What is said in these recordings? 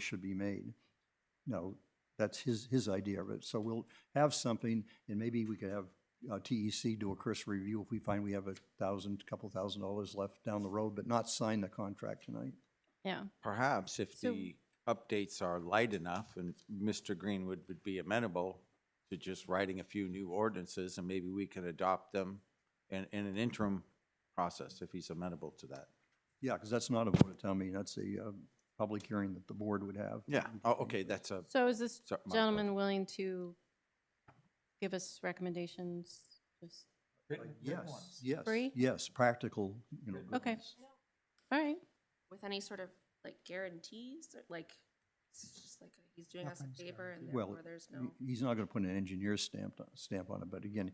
should be made. No, that's his, his idea of it. So we'll have something, and maybe we could have uh, TEC do a cursory review if we find we have a thousand, couple thousand dollars left down the road, but not sign the contract tonight. Yeah, Perhaps if So- the updates are light enough and Mr. Greenwood would be amenable to just writing a few new ordinances and maybe we can adopt them in, in an interim process if he's amenable to that. Yeah, because that's not a vote at town meeting, that's a uh, public hearing that the board would have. Yeah, oh, okay, that's a, so is this So, my- gentleman willing to give us recommendations? Just, Yes, yes, Free? yes, practical, you know. good Okay. ones. all right, with any sort of like guarantees, or, like, it's just like he's doing us a favor and Well, therefore there's He- no. He's not gonna put an engineer's stamp, on- stamp on it, but again,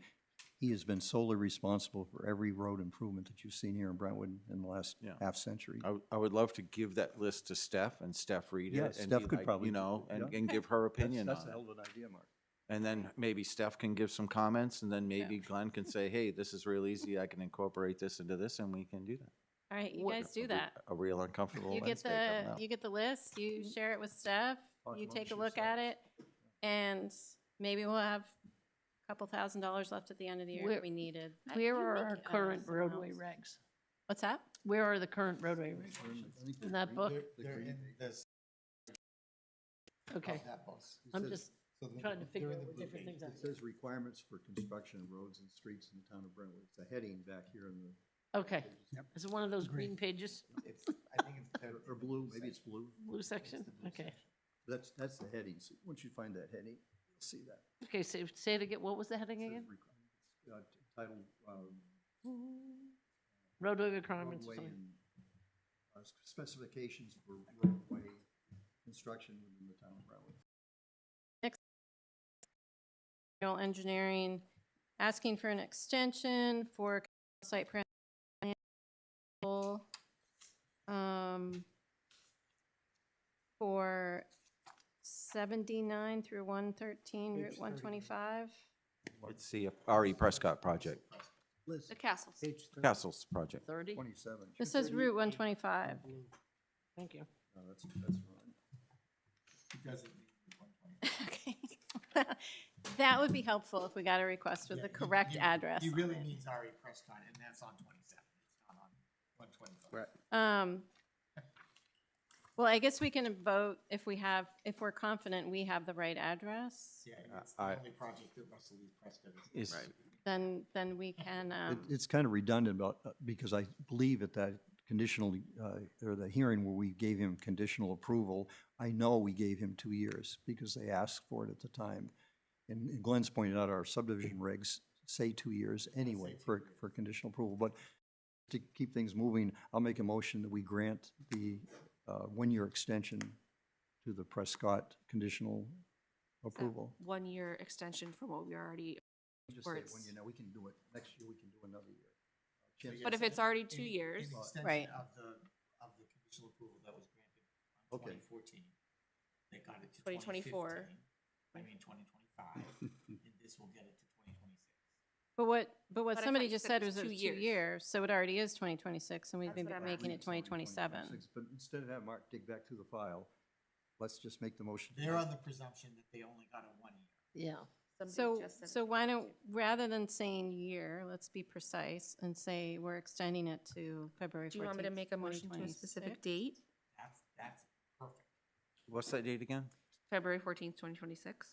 he has been solely responsible for every road improvement that you've seen here in Brentwood in the last Yeah. half century. I, would- I would love to give that list to Steph and Steph read it. Yeah, and be Steph could like, probably You do know, it, and, yeah. and give her opinion on That's a it. hell of an idea, Mark. And then maybe Steph can give some comments and then maybe Glenn can say, hey, this is real easy. I can incorporate this into this and we can do that. all right, you What- guys a do re- that. A real uncomfortable You get Wednesday the, coming up. you get the list, you share it with Steph, Oh, I you love take a shoe look at size. it, and maybe we'll have a couple thousand dollars left at the end of the year if Where- we needed. I- Where you are make our it out of current someone roadway else. regs? What's that? Where are the current roadway regs? In that book? They're in this, Okay, that box. It I'm says- just so the- trying to they're figure in out the what blue different page. things are. It says requirements for construction of roads and streets in the town of Brentwood. It's a heading back here in the, Okay. Is it one of those green pages, It's, I think it's. the- or- or blue, maybe it's blue. blue section? the blue Okay. That's, that's the heading. So once you find that heading, you'll see that. Okay, say, say it again. What was the heading It says again? requ- uh, t- Titled, um, Roadway requirements or roadway something. and uh, s- specifications for roadway construction within the town of Brentwood. General engineering, asking for an extension for site plan. um, For seventy-nine through one thirteen, Route one twenty-five. It's the RE Prescott project, The castles. Castles project. Thirty? Twenty-seven. This is Route one twenty-five. Thank you. No, that's, that's wrong. Because of the 120. Okay, That would be helpful if we got a request with Yeah, the you- correct you- address. He on really it. means Ari Prescott, and that's on twenty-seven, it's not on one twenty-five. Right. Um, well, I guess we can vote if we have, if we're confident we have the right address, Yeah, and Uh, it's the I- only project that Russell Lee Prescott is. Is, then, then we can, It, um, it's kind of redundant about, uh, because I believe at that conditional, uh, or the hearing where we gave him conditional approval, I know we gave him two years because they asked for it at the time. And and Glenn's pointed out our subdivision regs say two years anyway two for, for conditional approval. But to keep things moving, I'll make a motion that we grant the, uh, one-year extension to the Prescott conditional approval. One year extension from what we already, Just say, Or it's- when you know, we can do it. Next year, we can do another So you year. Yes. but if it's already two An- years, An Right. extension of the, of the conditional approval that was granted on Okay. twenty fourteen. They got it to twenty fifteen, 2024. I mean, twenty twenty-five, and this will get it to twenty twenty-six. but what, but But I what thought somebody you just said said it was was it two was two years. years, so it already is twenty twenty-six, and we've That's been what I'm making it twenty twenty-seven. But instead of having Mark dig back through the file, let's just make the motion. They're on the presumption that they only got a one year. Yeah. So, somebody just said. so why don't, rather than saying year, let's be precise and say we're extending it to February fourteenth. Do you want me to make a motion to a specific date? That's, that's perfect. what's that date again? February fourteenth, twenty twenty-six?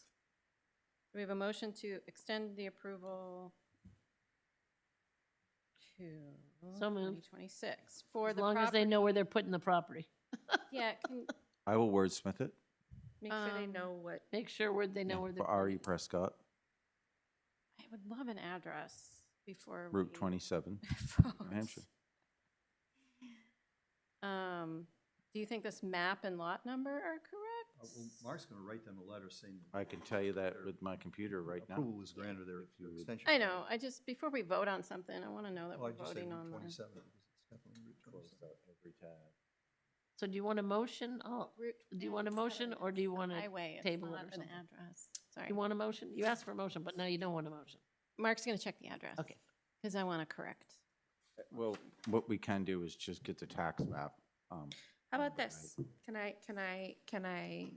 We have a motion to extend the approval to So moved. 2026 for As the long as they property. know where they're putting the property. Yeah, can- I will wordsmith it Make sure they Um, know what, Make sure where they know where they're. for RE putting it. Prescott, I would love an address before. Route we twenty-seven, New vote. Hampshire. Um, Do you think this map and lot number are Uh, correct? well, Mark's gonna write them a letter saying. that I can tell you that with my computer right now. Approval was granted there if you extension. I know, I just, before we vote on something, I want to know that Well, I we're just said voting Route on the twenty-seven. because it's definitely Route 27. So do you want a motion? Oh, route. do you want a motion or do you want to, Highway, it's table it not or an something? address, sorry. you want a motion? You asked for a motion, but now you don't want a motion. Mark's going to check the address. Okay. Because I want to correct. Well, what we can do is just get the tax map. um, How about this? Can I, can I, can I